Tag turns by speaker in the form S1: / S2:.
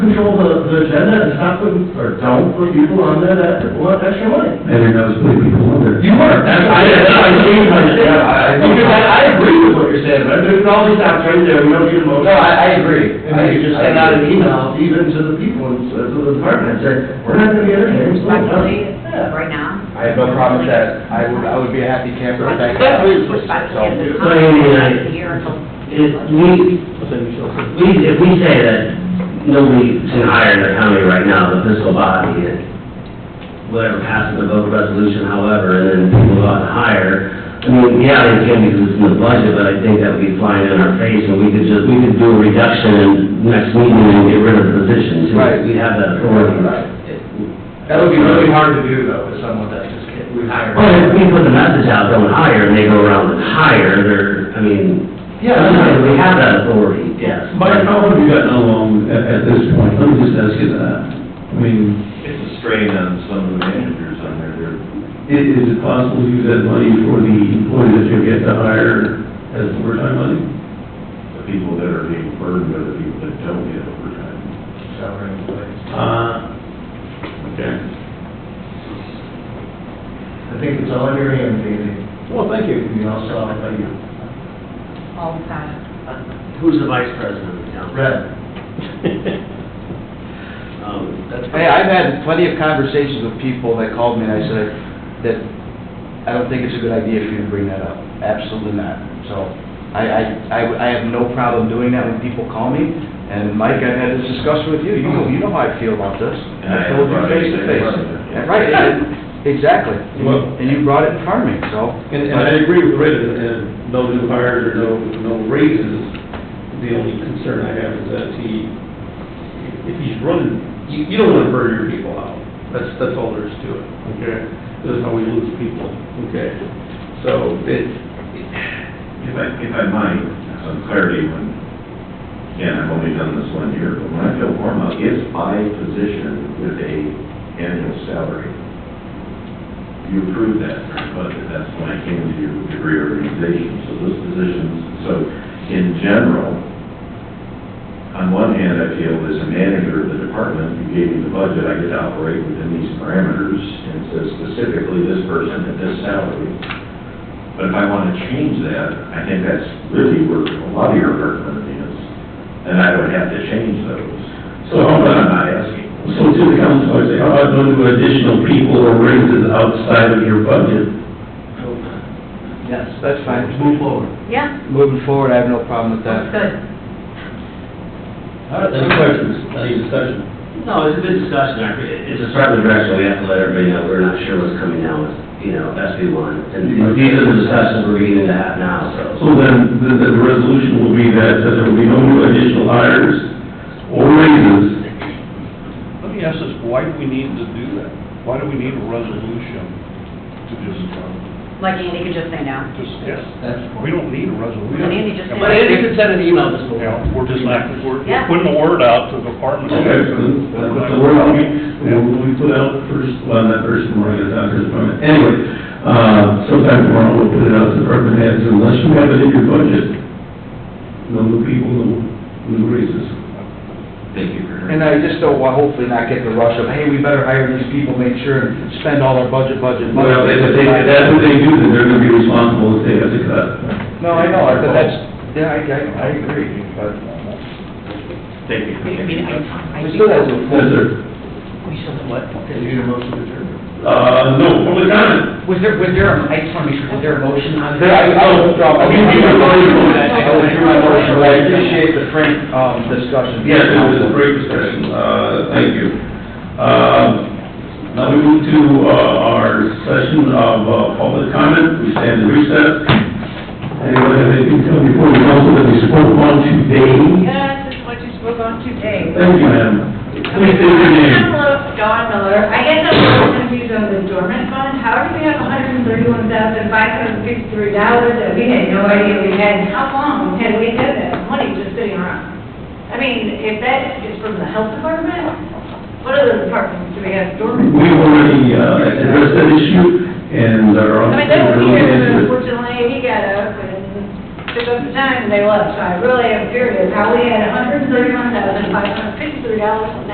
S1: control the, the agenda and stop putting, or don't put people on there that want extra money.
S2: Mayor knows who people are there.
S1: You were, that's, I, I agree with you,
S2: Yeah, I- I-
S1: because I, I agree with what you're saying, but there's all these times right there, we don't get a motion.
S2: No, I, I agree.
S1: And then you just send out an email even to the people, and to the department, and say, we're not gonna get our hands full.
S3: Respectfully,
S1: Yeah.
S3: right now.
S2: I have no problem with that. I would, I would be a happy camper if that.
S3: Respectfully,
S2: So,
S3: it's
S4: So, yeah,
S3: not a year until-
S4: If we, we, if we say that nobody can hire in the county right now, the fiscal body, and whatever passes the vote resolution, however, and then people go out and hire, I mean, yeah, they can because it's in the budget, but I think that would be flying in our face, and we could just, we could do a reduction in next meeting and get rid of the positions.
S2: Right.
S4: We have that authority.
S2: Right.
S1: That would be really hard to do though, with someone that just can't, we hire.
S4: Well, if we put the message out, don't hire, and they go around and hire, they're, I mean,
S1: Yeah.
S4: we have that authority, yes.
S2: Mike, how have you gotten along at, at this point? Let me just ask you that. I mean,
S5: It's a strain on some of the managers on there, they're
S2: i- is it possible to use that money for the employees that you get to hire as overtime money?
S5: the people that are being burned are the people that don't get overtime.
S1: Salary employees.
S2: Uh, okay.
S1: I think it's all in your hands, Andy.
S2: Well, thank you.
S1: You know, so, thank you.
S3: all the time.
S4: Who's the vice president of the council?
S1: Red.
S4: Um,
S1: that's-
S2: Hey, I've had plenty of conversations with people that called me and I said that I don't think it's a good idea for you to bring that up. Absolutely not. So I, I, I I have no problem doing that when people call me. And Mike, I've had this discussion with you. You know, you know how I feel about this. I told you face to face. Yeah, Right, and- exactly.
S6: Well-
S2: And you brought it in front of me, so.
S6: And, and I agree with Red, and- and no new hires or no, no raises. The only concern I have is that he, if he's running, you, you don't want to burn your people out. That's, that's all there is to it, okay? That's how we lose people, okay? So it,
S5: If I, if I might, some clarity when, again, I've only done this one year, but when I feel warm up, it's by position with a annual salary. You approved that, but that's when I came to your degree organization, so those positions, so in general, on one hand, I feel as a manager of the department, you gave me the budget, I get to operate within these parameters and says specifically this person at this salary. But if I want to change that, I think that's really where a lot of your argument is, and I would have to change those. So I'm not asking.
S6: So to the council, "Oh, I say, how about no new additional people or raises outside of your budget?
S2: Yes. That's fine.
S1: Move forward.
S3: Yeah,
S2: Moving forward, I have no problem with that.
S3: that's good.
S6: All right, any questions, any discussion?
S4: No, it's a good discussion, I- it's a start in the direction, we have to let everybody know, we're not sure what's coming down with, you know, SB one. And these are the discussions we're beginning to have now, so.
S6: So then, the, the resolution will be that, that there will be no new additional hires or raises.
S7: Let me ask this, why do we need to do that? Why do we need a resolution to just, um,
S3: Like Andy could just say no.
S7: just, yes? We don't need a resolution.
S3: But Andy just said-
S7: We're-
S2: Andy could send an email this
S7: you know, We're just not, we're
S3: Yeah.
S7: we're putting the word out to the department.
S6: Okay, so then, but the word out, we, we put out first, well, not first tomorrow, it's not first tomorrow. Anyway, uh, sometime tomorrow, we'll put it out to department heads, unless you have it in your budget. No new people, no new raises.
S5: Thank you for hearing.
S2: And I just don't want, hopefully not get the rush of, hey, we better hire these people, make sure and spend all our budget, budget, budget.
S6: Well, if they, if that's what they do, then they're gonna be responsible if they have to cut.
S2: No, I know, I but that's, yeah, I, I, I agree, but.
S5: Thank you.
S3: I mean, I, I think
S2: We still have to.
S6: Yes, sir.
S3: we should have
S1: Okay, you need a motion to adjourn.
S6: Uh, no, public comment.
S8: Was there, was there, a- I just want to make sure, was there a motion on
S2: There,
S8: this?
S2: I, I withdraw my.
S6: You can withdraw your motion.
S2: I withdrew my motion, but I appreciate the frank, um, discussion.
S6: Yes, it was a great discussion, uh, thank you. Um, Now we move to uh, our session of uh, public comment, we stand in recess. Anyone have anything to come before the council that we spoke on today?
S9: Yes, it's what you spoke on today.
S6: Thank you, ma'am. Please state your name.
S9: Hello, Dawn Miller. I guess I'm more confused on the dormant fund. How do we have hundred and thirty-one thousand five hundred and fifty-three dollars that we had no idea we had? How long had we had that money just sitting around? I mean, if that is from the health department, what other departments do we have dormant?
S6: We already uh, addressed that issue and are on.
S9: I mean, they were here, but unfortunately, he got up and took up the time and they left, so I really am curious how we had hundred and thirty-one thousand five hundred and fifty-three dollars